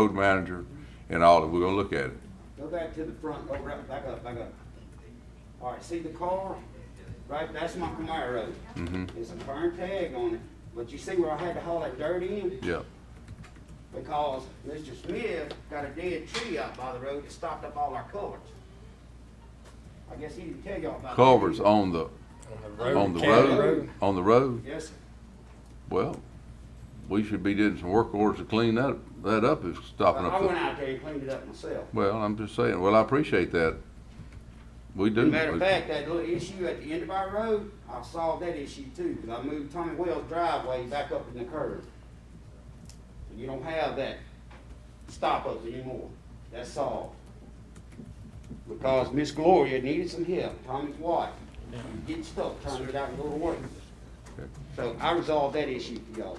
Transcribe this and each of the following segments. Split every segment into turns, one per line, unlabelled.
road manager and all, that. we're gonna look at it.
Go back to the front, go right, back up, back up. All right, see the car? Right, that's my Camaro. road.
Mm-hmm.
It's a burn tag on it, but you see where I had to haul that dirt in?
Yeah,
Because Mr. Smith got a dead tree out by the road that stopped up all our culverts. I guess he didn't tell y'all about that.
culverts on the, on the road,
road.
on the road,
Yes, sir.
well, we should be doing some work orders to clean that, that up if it's stopping
I
up.
went
the-
out there and cleaned it up myself.
Well, I'm just saying, well, I appreciate that. We do.
Matter of fact, that little issue at the end of our road, I solved that issue too, because I moved Tommy Wells' driveway back up in the curve. So You don't have that stop us anymore. That's solved. Because Miss Gloria needed some help, Tommy's wife. You get stuck trying to get out and go to work.
Okay.
So I resolved that issue for y'all.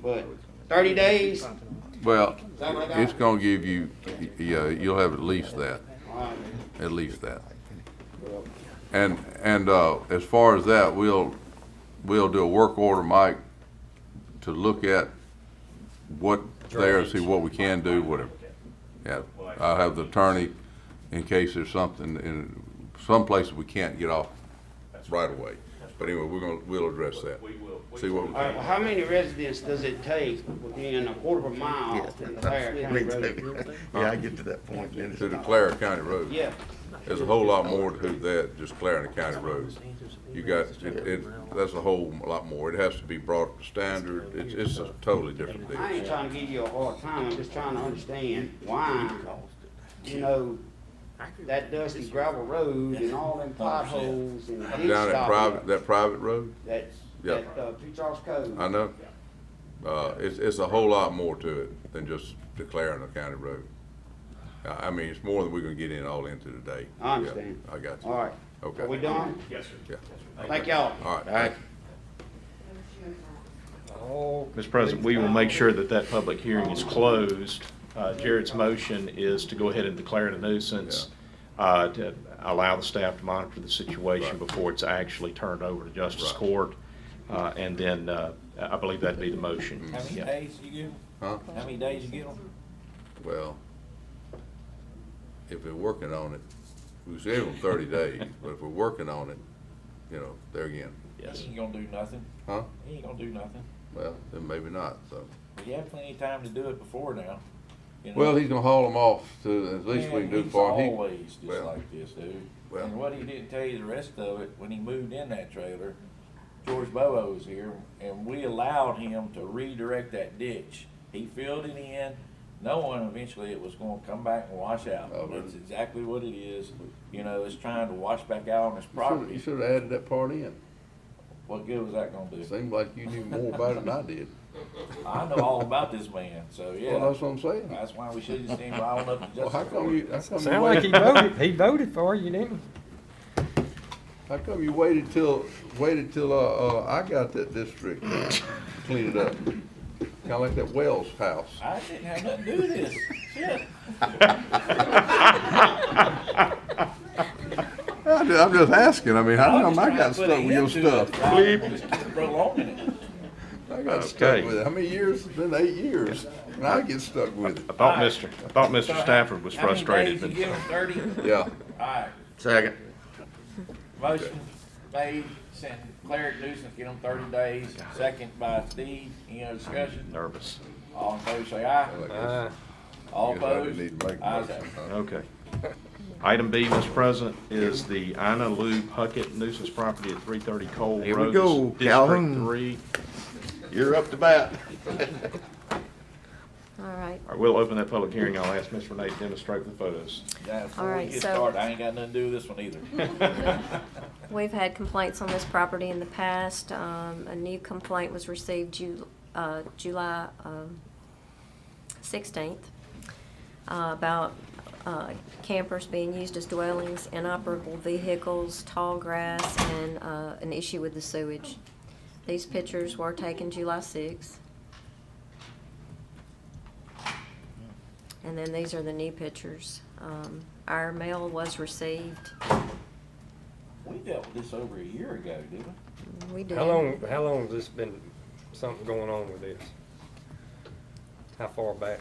But thirty days,
Well,
that what I got?
it's gonna give you, yeah, you'll have at least that,
uh,
at least that.
well,
And, and, uh, as far as that, we'll, we'll do a work order, Mike, to look at what there, see what we can do, whatever. Yeah, I'll have the attorney in case there's something in, some places we can't get off right away. But anyway, we're gonna, we'll address that.
We will. we
See what we
will.
All right, well, how many residents does it take within a quarter of a mile to declare a county road?
Yeah, I get to that point, then
To declare a county road.
Yeah,
There's a whole lot more to that, just declaring a county road. You got, it, it, that's a whole lot more. It has to be brought to standard. It's, it's a totally different deal.
I ain't trying to give you a hard time, I'm just trying to understand why, you know, that dusty gravel road and all them potholes and ditch
Down that private,
stopping.
that private road,
That's,
Yeah.
that, uh, Pete Charles Cove.
I know. Uh, it's, it's a whole lot more to it than just declaring a county road. I, I mean, it's more than we're gonna get in all into today.
I understand.
Yeah, I got you.
All right,
Okay.
are we done?
Yes, sir.
Yeah.
Thank y'all.
All right, thank you.
Mr. President, we will make sure that that public hearing is closed. Uh, Jared's motion is to go ahead and declare it a nuisance, uh, to allow the staff to monitor the situation before it's actually turned over to justice
Right.
court. Uh, And then, uh, I believe that'd be the motion.
How many
Yeah.
days you give them?
Huh?
How many days you get them?
Well, if we're working on it, we say them thirty days, but if we're working on it, you know, there again,
Yes.
He ain't gonna do nothing.
huh?
He ain't gonna do nothing.
Well, then maybe not, so.
But you have plenty of time to do it before now. you know?
Well, he's gonna haul them off to, at least we
Man,
can do
he's
for him. He-
Always just
well,
like this, dude.
well.
And what he didn't tell you the rest of it, when he moved in that trailer, George Bobo was here, and we allowed him to redirect that ditch. He filled it in, knowing eventually it was gonna come back and wash out.
Oh,
That's
really?
exactly what it is. You know, it's trying to wash back out on his
You should've- You
property.
should have added that part in.
What good was that gonna do?
Seemed like you knew more about it than I did.
I know all about this man, so yeah.
Well, that's what I'm saying.
That's why we shouldn't stand by all up to
Well,
justice.
how come you, how come you
Sound like he
waited,
voted, he voted for you, didn't
how come you waited till, waited till, uh, uh, I got that district cleaned up? Kinda like that Wells house.
I didn't have nothing to do with this. Shit.
I'm ju- I'm just asking, I mean, how come
I'm just
I
trying
got
to
stuck with
put an end
your
to it.
stuff?
I'm just prolonging it.
I got stuck
Okay.
with it. How many years? It's been eight years, and I get stuck with
I
it.
thought Mr., I thought Mr. Stafford was
How many
frustrated,
days
but
you give him? thirty?
Yeah.
Alright,
Second.
motion made, sent Claire nuisance, give him thirty days, second by Steve, any other discussion?
nervous.
All in favor say
I
aye,
guess-
he? Uh,
all
I guess I
opposed,
didn't need to make a
ayes
motion,
have it.
huh?
Okay. Item B, Mr. President, is the Ina Lou Puckett nuisance property at 330 Cole Road.
Here we go,
District
Calhoun.
3.
You're up to bat.
All right,
All right, we'll open that public hearing. I'll ask Ms. Renee to demonstrate the photos.
Now, before we
Alright,
get
so-
started, I ain't got nothing to do with this one either.
we've had complaints on this property in the past. Um, a new complaint was received Ju- uh, July, um, sixteenth, uh, about, uh, campers being used as dwellings, inoperable vehicles, tall grass, and, uh, an issue with the sewage. These pictures were taken July sixth. And then these are the new pictures. Um, our mail was received.
We dealt with this over a year ago, didn't we?
We did.
how long, how long has this been, something going on with this? How far back?